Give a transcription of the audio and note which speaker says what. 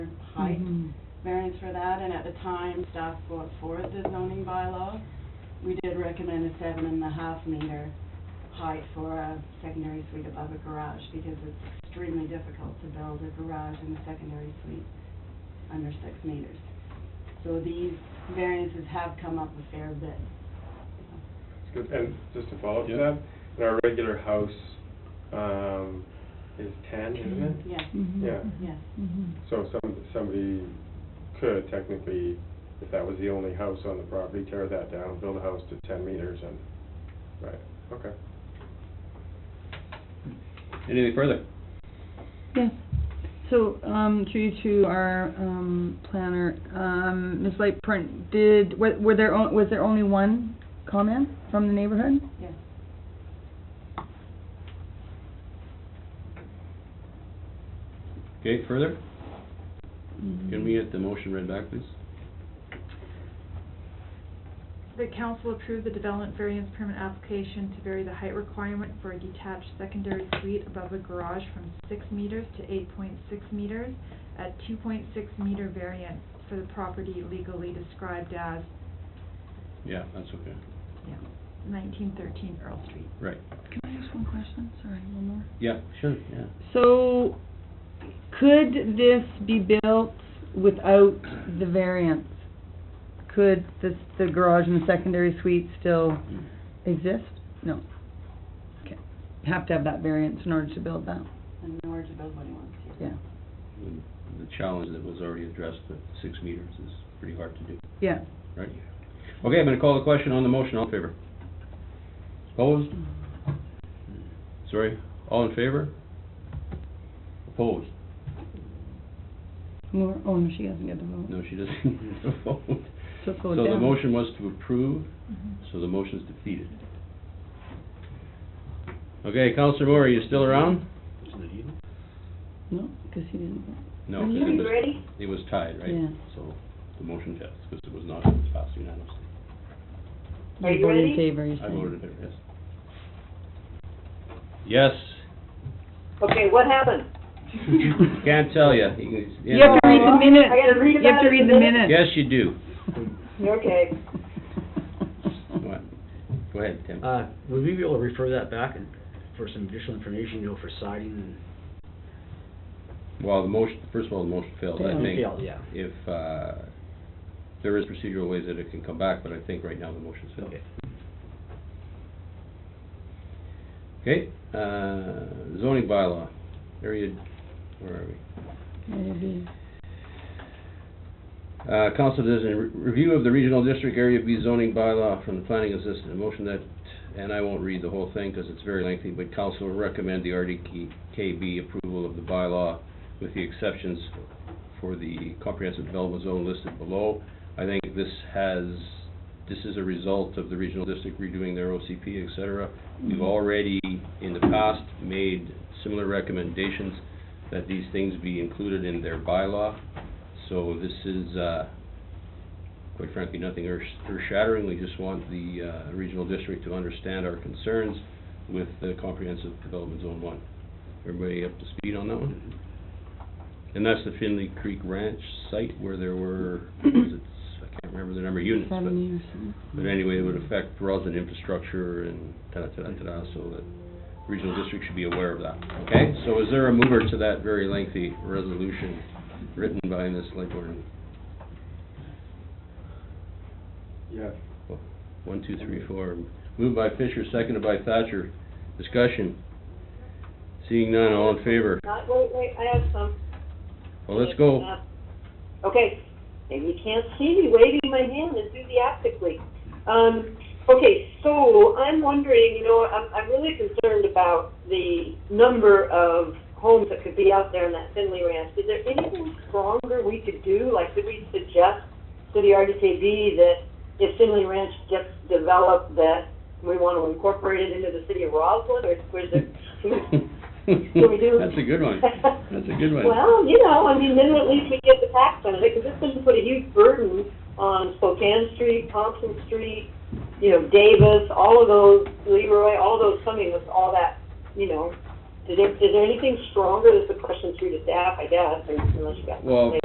Speaker 1: height
Speaker 2: Mm-hmm.
Speaker 1: variance for that, and at the time, staff brought forth the zoning bylaw. We did recommend a seven and a half meter height for a secondary suite above a garage, because it's extremely difficult to build a garage and a secondary suite under six meters. So these variances have come up a fair bit.
Speaker 3: It's good. And just to follow up to
Speaker 4: Yeah.
Speaker 3: that, and our regular house, um, is ten, isn't it?
Speaker 1: Yes,
Speaker 2: Mm-hmm.
Speaker 3: Yeah.
Speaker 1: yes.
Speaker 3: So some, somebody could technically, if that was the only house on the property, tear that down, build a house to ten meters and, right, okay.
Speaker 4: Anything further?
Speaker 2: Yeah. So, um, through you to our, um, planner, um, Ms. Lightprint, did, were, were there, on- was there only one comment from the neighborhood?
Speaker 1: Yes.
Speaker 4: Okay, further? Mm-hmm. Can we get the motion read back, please?
Speaker 5: The council approved the development variance permit application to vary the height requirement for a detached secondary suite above a garage from six meters to eight point six meters at two point six meter variance for the property legally described as
Speaker 4: Yeah, that's okay.
Speaker 5: nineteen thirteen Earl Street.
Speaker 4: Right.
Speaker 2: Can I ask one question? Sorry, one more.
Speaker 4: Yeah, sure, yeah.
Speaker 2: So, could this be built without the variance? Could this, the garage and the secondary suite still exist? No. Okay. Have to have that variance in order to build that,
Speaker 1: And in order to build what he wants to.
Speaker 2: yeah.
Speaker 4: And The challenge that was already addressed, the six meters, is pretty hard to do,
Speaker 2: Yeah.
Speaker 4: right? Okay, I'm gonna call the question on the motion, all in favor? Opposed? Sorry, all in favor? Opposed?
Speaker 2: Nor- Oh, no, she doesn't get the vote.
Speaker 4: No, she doesn't need to vote.
Speaker 2: So go
Speaker 4: So the
Speaker 2: down. Mm-hmm.
Speaker 4: motion was to approve, so the motion's defeated. Okay, Counselor Moore, are you still around?
Speaker 2: No, because he didn't vote.
Speaker 4: No,
Speaker 2: Are
Speaker 4: 'cause
Speaker 2: you
Speaker 4: it was, it was tied, right?
Speaker 2: Yeah.
Speaker 4: So the motion fails, because it was not, it was passed unanimously.
Speaker 2: Are you voted in favor, you're
Speaker 4: I
Speaker 2: saying?
Speaker 4: voted in favor, yes. Yes,
Speaker 6: Okay, what happened?
Speaker 4: can't tell ya. you. can-
Speaker 2: You have to read the minutes.
Speaker 6: Oh, I gotta read
Speaker 2: You have to
Speaker 6: about it in
Speaker 2: read
Speaker 6: the
Speaker 2: the minutes.
Speaker 4: Yes, you do.
Speaker 6: Okay.
Speaker 4: Go ahead. Go ahead, Tim.
Speaker 7: Uh, would we be able to refer that back and for some additional information, you know, for siding and
Speaker 4: Well, the motion, first of all, the motion failed, I
Speaker 2: Yeah.
Speaker 4: think.
Speaker 7: Failed, yeah.
Speaker 4: If, uh, there is procedural ways that it can come back, but I think right now the motion's failed.
Speaker 7: Okay.
Speaker 4: Okay, uh, zoning bylaw, area, where are we?
Speaker 2: Maybe.
Speaker 4: Uh, council decision, re- review of the regional district area B zoning bylaw from the planning assistant, a motion that, and I won't read the whole thing because it's very lengthy, but council will recommend the RDKB approval of the bylaw with the exceptions for the comprehensive development zone listed below. I think this has, this is a result of the regional district redoing their OCP, et cetera. We've already, in the past, made similar recommendations that these things be included in their bylaw. So this is, uh, quite frankly, nothing earth- earth-shattering. We just want the uh, regional district to understand our concerns with the comprehensive development zone one. Everybody up to speed on that one? And that's the Finley Creek Ranch site where there were, was it, I can't remember the number of units, but...
Speaker 2: Seven years. huh?
Speaker 4: But anyway, it would affect roads and infrastructure and ta-da-ta-da-ta-da, so that regional district should be aware of that, okay? So is there a mover to that very lengthy resolution written by Ms. Lightborn?
Speaker 3: Yeah,
Speaker 4: One, two, three, four. Moved by Fisher, seconded by Thatcher. Discussion. Seeing none, all in favor?
Speaker 6: Not, wait, wait, I have some. Uh,
Speaker 4: Well, let's go.
Speaker 6: Okay, maybe you can't see me waving my hand enthusiastically. Um, okay, so I'm wondering, you know, I'm, I'm really concerned about the number of homes that could be out there in that Finley Ranch. Is there anything stronger we could do? Like, could we suggest to the RDKB that if Finley Ranch gets developed, that we want to incorporate it into the city of Roslyn, or or is there, Can we do?
Speaker 4: That's a good one. That's a good one.
Speaker 6: Well, you know, I mean, then at least we get the tax on it, because it's going to put a huge burden on Spokane Street, Thompson Street, you know, Davis, all of those, Leroy, all those coming with all that, you know. Is there, is there anything stronger? That's a question through to staff, I guess, unless you got.
Speaker 4: Well,